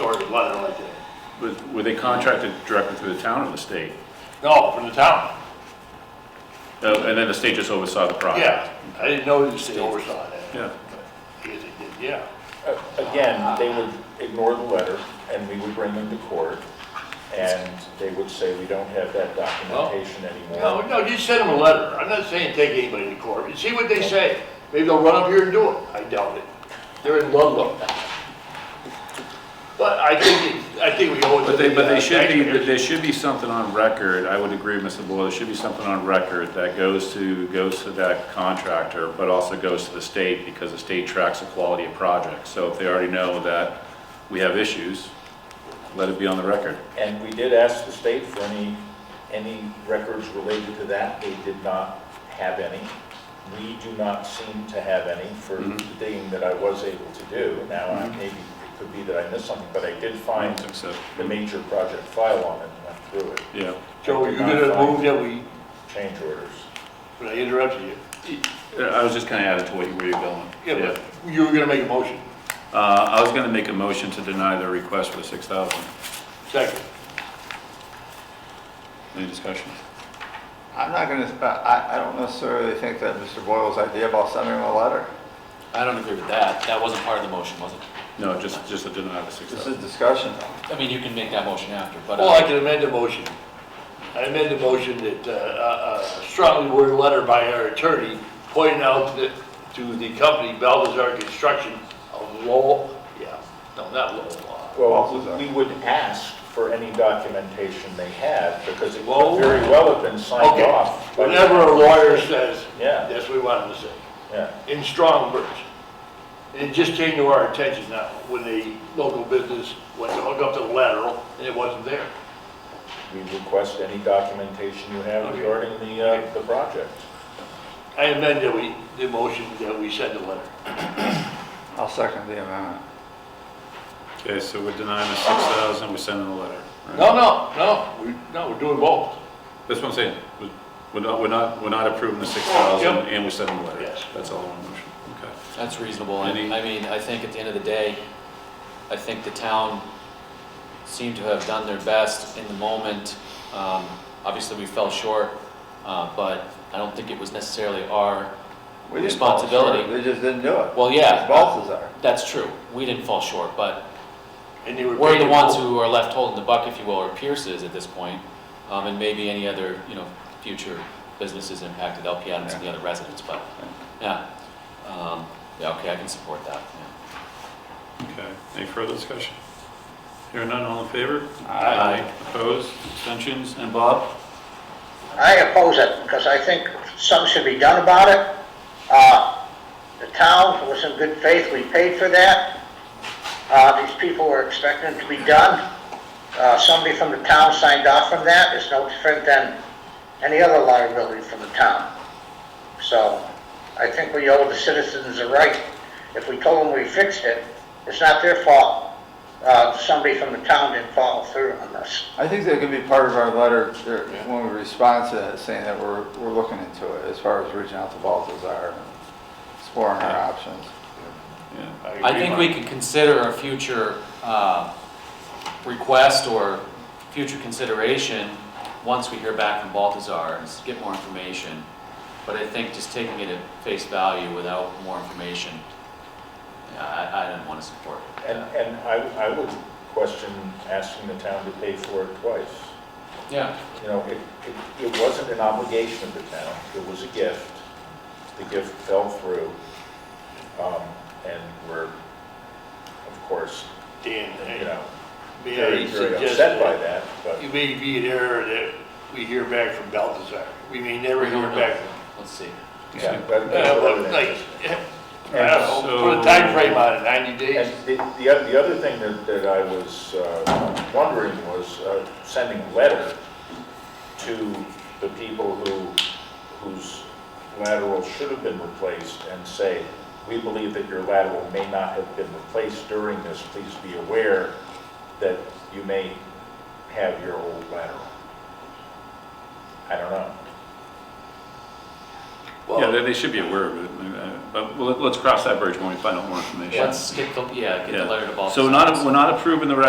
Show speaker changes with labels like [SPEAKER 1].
[SPEAKER 1] or the weather like that.
[SPEAKER 2] Was- Were they contracted directly through the town or the state?
[SPEAKER 1] No, from the town,
[SPEAKER 2] Uh, And then the state just oversaw the project?
[SPEAKER 1] yeah. I didn't know that they oversaw that.
[SPEAKER 2] Yeah.
[SPEAKER 1] I guess they did, Yeah,
[SPEAKER 3] Uh, Again, they would ignore the letter, and we would bring them to court, and they would say, we don't have that documentation
[SPEAKER 1] no,
[SPEAKER 3] anymore.
[SPEAKER 1] no, just send them a letter, I'm not saying take anybody to court, but see what they say. Maybe they'll run up here and do it, I doubt it. They're in Ludlow. But I think, it- I think we owe it to
[SPEAKER 2] But they, but
[SPEAKER 1] the, uh,
[SPEAKER 2] they should be,
[SPEAKER 1] taxpayers.
[SPEAKER 2] but there should be something on record, I would agree, Mr. Boyle, there should be something on record that goes to, goes to that contractor, but also goes to the state, because the state tracks the quality of projects. So if they already know that we have issues, let it be on the record.
[SPEAKER 3] And we did ask the state for any, any records related to that, they did not have any. We do not seem to have any for
[SPEAKER 1] Mm-hmm.
[SPEAKER 3] the digging that I was able to do. Now, I- maybe it could be that I missed something, but I did
[SPEAKER 2] I
[SPEAKER 3] find
[SPEAKER 2] don't
[SPEAKER 1] Mm-hmm.
[SPEAKER 2] think so.
[SPEAKER 3] the major project file on it, and went through it,
[SPEAKER 2] Yeah.
[SPEAKER 1] Joe, you gonna move that we,
[SPEAKER 3] change orders.
[SPEAKER 1] but I interrupted you.
[SPEAKER 2] I was just gonna add it to what you, where you're going.
[SPEAKER 1] Yeah, but you were gonna make a motion,
[SPEAKER 2] Uh, I was gonna make a motion to deny their request for the six thousand.
[SPEAKER 1] second.
[SPEAKER 2] Any discussion?
[SPEAKER 4] I'm not gonna, sp- I, I don't necessarily think that Mr. Boyle's idea about sending him a letter,
[SPEAKER 5] I don't agree with that. That wasn't part of the motion, was it?
[SPEAKER 2] No, just, just to deny the six
[SPEAKER 4] this is
[SPEAKER 2] thousand.
[SPEAKER 4] discussion though.
[SPEAKER 5] I mean, you can make that motion after, but. uh,
[SPEAKER 1] Well, I can amend the motion. I amend the motion that, uh, uh, a strongly worded letter by our attorney pointing out that to the company Balthazar Construction of Lowell, yeah, no, not Lowell,
[SPEAKER 3] Well,
[SPEAKER 4] Also, sir.
[SPEAKER 3] we would ask for any documentation they have, because it
[SPEAKER 1] Well-
[SPEAKER 3] could very well have been
[SPEAKER 1] uh,
[SPEAKER 3] signed
[SPEAKER 1] okay.
[SPEAKER 3] off. by-
[SPEAKER 1] Whatever a lawyer says,
[SPEAKER 3] Yeah.
[SPEAKER 1] that's what we want him to say,
[SPEAKER 3] Yeah,
[SPEAKER 1] in strong words. And it just came to our attention now, when the local business went to hook up the lateral, and it wasn't there.
[SPEAKER 3] we request any documentation you have
[SPEAKER 1] Okay.
[SPEAKER 3] regarding the, uh, the project.
[SPEAKER 1] I amend that we, the motion that we send the letter.
[SPEAKER 4] I'll second the amendment.
[SPEAKER 2] Okay, so we're denying the six thousand, we're sending a letter. right?
[SPEAKER 1] No, no, no, we, no, we're doing both.
[SPEAKER 2] That's what I'm saying. We- We're not, we're not, we're not approving the six thousand
[SPEAKER 1] Yep.
[SPEAKER 2] and we're sending a letter.
[SPEAKER 1] Yes.
[SPEAKER 2] That's all one motion. Okay.
[SPEAKER 5] That's reasonable, and
[SPEAKER 2] Any-
[SPEAKER 5] I mean, I think at the end of the day, I think the town seemed to have done their best in the moment. Um, Obviously, we fell short, uh, but I don't think it was necessarily our,
[SPEAKER 4] We didn't fall short,
[SPEAKER 5] Responsibility.
[SPEAKER 4] They just didn't do it.
[SPEAKER 5] well, yeah.
[SPEAKER 4] Balthazar.
[SPEAKER 5] That's true, we didn't fall short, but
[SPEAKER 1] And they were.
[SPEAKER 5] we're the
[SPEAKER 1] paid
[SPEAKER 5] ones
[SPEAKER 1] full-
[SPEAKER 5] who are left holding the buck, if you will, or Pierce is at this point, um, and maybe any other, you know, future businesses impacted, LP Adams and the other residents, but, yeah. Um, Yeah, okay, I can support that, yeah.
[SPEAKER 2] Okay. Any further discussion? Hearing none, all in favor?
[SPEAKER 4] Aye.
[SPEAKER 2] Opposed, abstentions, and Bob?
[SPEAKER 6] I oppose it, because I think something should be done about it. Uh, The town was in good faith, we paid for that. Uh, These people were expecting it to be done. Uh, Somebody from the town signed off on that, it's no different than any other liability from the town. So I think we owe the citizens a right. If we told them we fixed it, it's not their fault. Uh, Somebody from the town didn't follow through on this.
[SPEAKER 4] I think that could be part of our letter there, when we respond to that, saying that we're, we're looking into it as far as reaching out to Balthazar and exploring our options.
[SPEAKER 2] Yeah.
[SPEAKER 5] I think we could consider a future uh, request or future consideration once we hear back from Baltazar and s- get more information. But I think just taking it at face value without more information, yeah, I, I didn't want to support it.
[SPEAKER 3] And, and I, I would question asking the town to pay for it twice.
[SPEAKER 5] Yeah,
[SPEAKER 3] You know, it, it, it wasn't an obligation of the town, it was a gift. The gift fell through, um, and we're, of course,
[SPEAKER 1] Dan,
[SPEAKER 3] you
[SPEAKER 1] hey,
[SPEAKER 3] know,
[SPEAKER 1] may
[SPEAKER 3] very,
[SPEAKER 1] I
[SPEAKER 3] very
[SPEAKER 1] suggest
[SPEAKER 3] upset by
[SPEAKER 1] that
[SPEAKER 3] that, but.
[SPEAKER 1] it may be an error that we hear back from Balthazar. We may never
[SPEAKER 5] We don't
[SPEAKER 1] hear
[SPEAKER 5] know.
[SPEAKER 1] back. from-
[SPEAKER 5] let's see.
[SPEAKER 3] Yeah,
[SPEAKER 1] Uh,
[SPEAKER 3] but that's what
[SPEAKER 1] but
[SPEAKER 3] it
[SPEAKER 1] Like,
[SPEAKER 3] is.
[SPEAKER 1] I don't know, put a time frame on it, 90 days.
[SPEAKER 3] And the, the oth- the other thing that, that I was uh, wondering was uh, sending a letter to the people who, whose lateral should have been replaced and say, we believe that your lateral may not have been replaced during this, please be aware that you may have your old lateral. I don't know.
[SPEAKER 2] Yeah,
[SPEAKER 1] Well,
[SPEAKER 2] they, they should be aware of it, uh, but we'll- let's cross that bridge when we find out more information.
[SPEAKER 5] Let's get the, yeah, get
[SPEAKER 2] Yeah.
[SPEAKER 5] the letter to Baltazar.
[SPEAKER 2] So we're not, we're not approving the record